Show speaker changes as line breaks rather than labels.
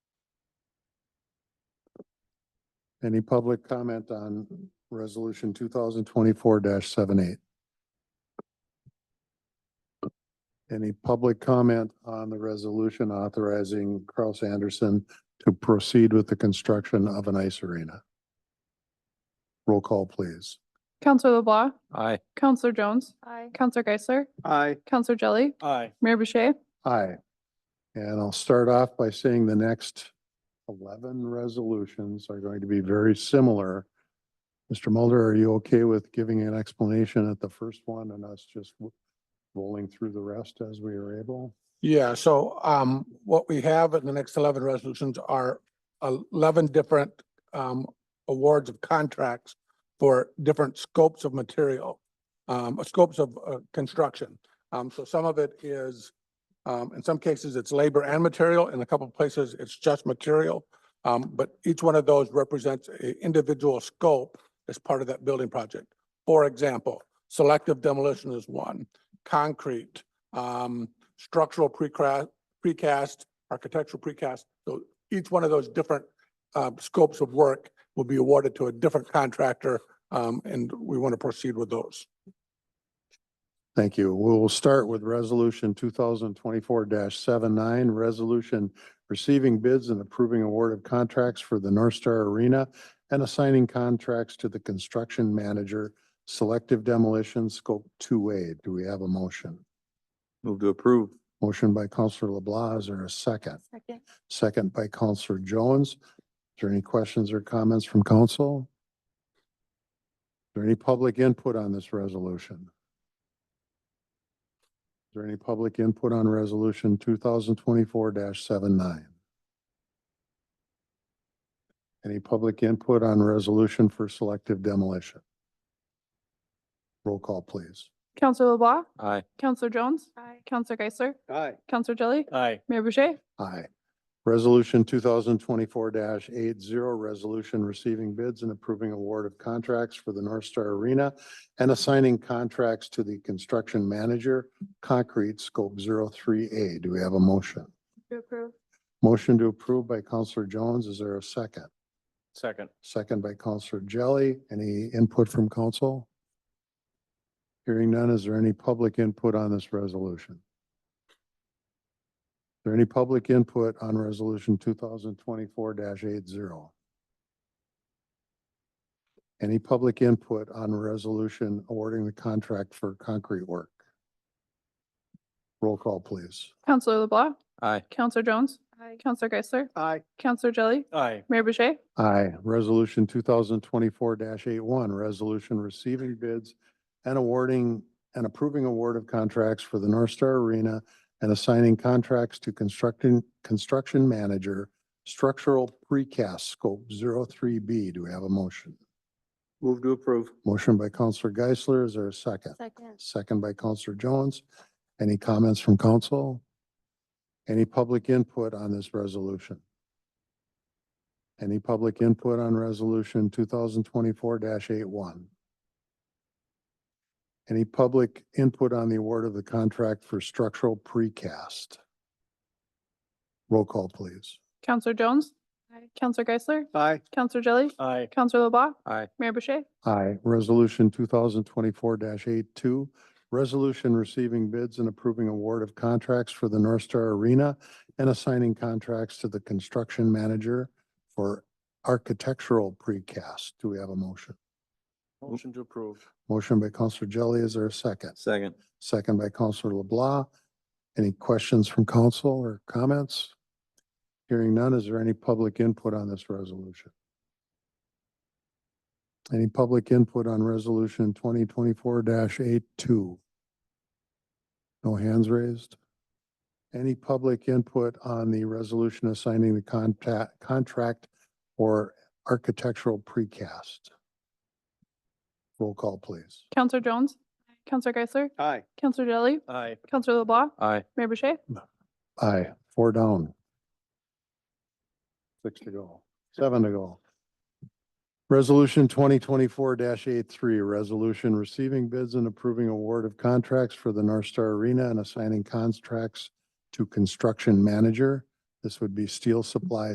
Any public comment on resolution two thousand twenty-four 78 Any public comment on the resolution authorizing Kraus Anderson to proceed with the construction of an ice arena? Roll call, please.
Counselor LeBlanc,
Aye.
Counselor Jones,
Aye.
Counselor Geisler,
Aye.
Counselor Jelly,
Aye.
Mayor Boucher.
Aye. And I'll start off by saying the next eleven resolutions are going to be very similar. Mr. Mulder, are you okay with giving an explanation at the first one and us just w- rolling through the rest as we are able?
Yeah, so um, what we have in the next eleven resolutions are eleven different um awards of contracts for different scopes of material, um, uh, scopes of uh, construction. Um, so some of it is, um, in some cases, it's labor and material. In a couple of places, it's just material. Um, but each one of those represents an individual scope as part of that building project. For example, selective demolition is one, concrete, um, structural precast, precast, architectural precast. So each one of those different uh, scopes of work will be awarded to a different contractor, um, and we want to proceed with those.
Thank you. We'll start with resolution two thousand twenty-four 79 resolution receiving bids and approving award of contracts for the North Star Arena and assigning contracts to the construction manager, selective demolition scope two A. Do we have a motion?
Move to approve.
Motion by Counselor LeBlanc, is there a second?
Second.
Second by Counselor Jones. Is there any questions or comments from council? Is there any public input on this resolution? Is there any public input on resolution two thousand twenty-four 79 Any public input on resolution for selective demolition? Roll call, please.
Counselor LeBlanc,
Aye.
Counselor Jones,
Aye.
Counselor Geisler,
Aye.
Counselor Jelly,
Aye.
Mayor Boucher.
Aye. Resolution two thousand twenty-four 80 resolution receiving bids and approving award of contracts for the North Star Arena and assigning contracts to the construction manager, concrete scope 3 A. Do we have a motion?
To approve.
Motion to approve by Counselor Jones. Is there a second?
Second.
Second by Counselor Jelly. Any input from council? Hearing none, is there any public input on this resolution? Is there any public input on resolution two thousand twenty-four 80 Any public input on resolution awarding the contract for concrete work? Roll call, please.
Counselor LeBlanc,
Aye.
Counselor Jones,
Aye.
Counselor Geisler,
Aye.
Counselor Jelly,
Aye.
Mayor Boucher.
Aye. Resolution two thousand twenty-four 81 resolution receiving bids and awarding and approving award of contracts for the North Star Arena and assigning contracts to constructing, construction manager, structural precast scope 3 B. Do we have a motion?
Move to approve.
Motion by Counselor Geisler. Is there a second?
Second.
Second by Counselor Jones. Any comments from council? Any public input on this resolution? Any public input on resolution two thousand twenty-four 81 Any public input on the award of the contract for structural precast? Roll call, please.
Counselor Jones,
Aye.
Counselor Geisler,
Aye.
Counselor Jelly,
Aye.
Counselor LeBlanc.
Aye.
Mayor Boucher.
Aye. Resolution two thousand twenty-four 82 resolution receiving bids and approving award of contracts for the North Star Arena and assigning contracts to the construction manager for architectural precast. Do we have a motion?
Motion to approve.
Motion by Counselor Jelly. Is there a second?
Second.
Second by Counselor LeBlanc. Any questions from council or comments? Hearing none, is there any public input on this resolution? Any public input on resolution twenty twenty-four 82 No hands raised? Any public input on the resolution assigning the contact, contract or architectural precast? Roll call, please.
Counselor Jones, Counselor Geisler,
Aye.
Counselor Jelly,
Aye.
Counselor LeBlanc,
Aye.
Mayor Boucher.
Aye, four down. Six to go, seven to go. Resolution twenty twenty-four 83 resolution receiving bids and approving award of contracts for the North Star Arena and assigning contracts to construction manager. This would be Steel Supply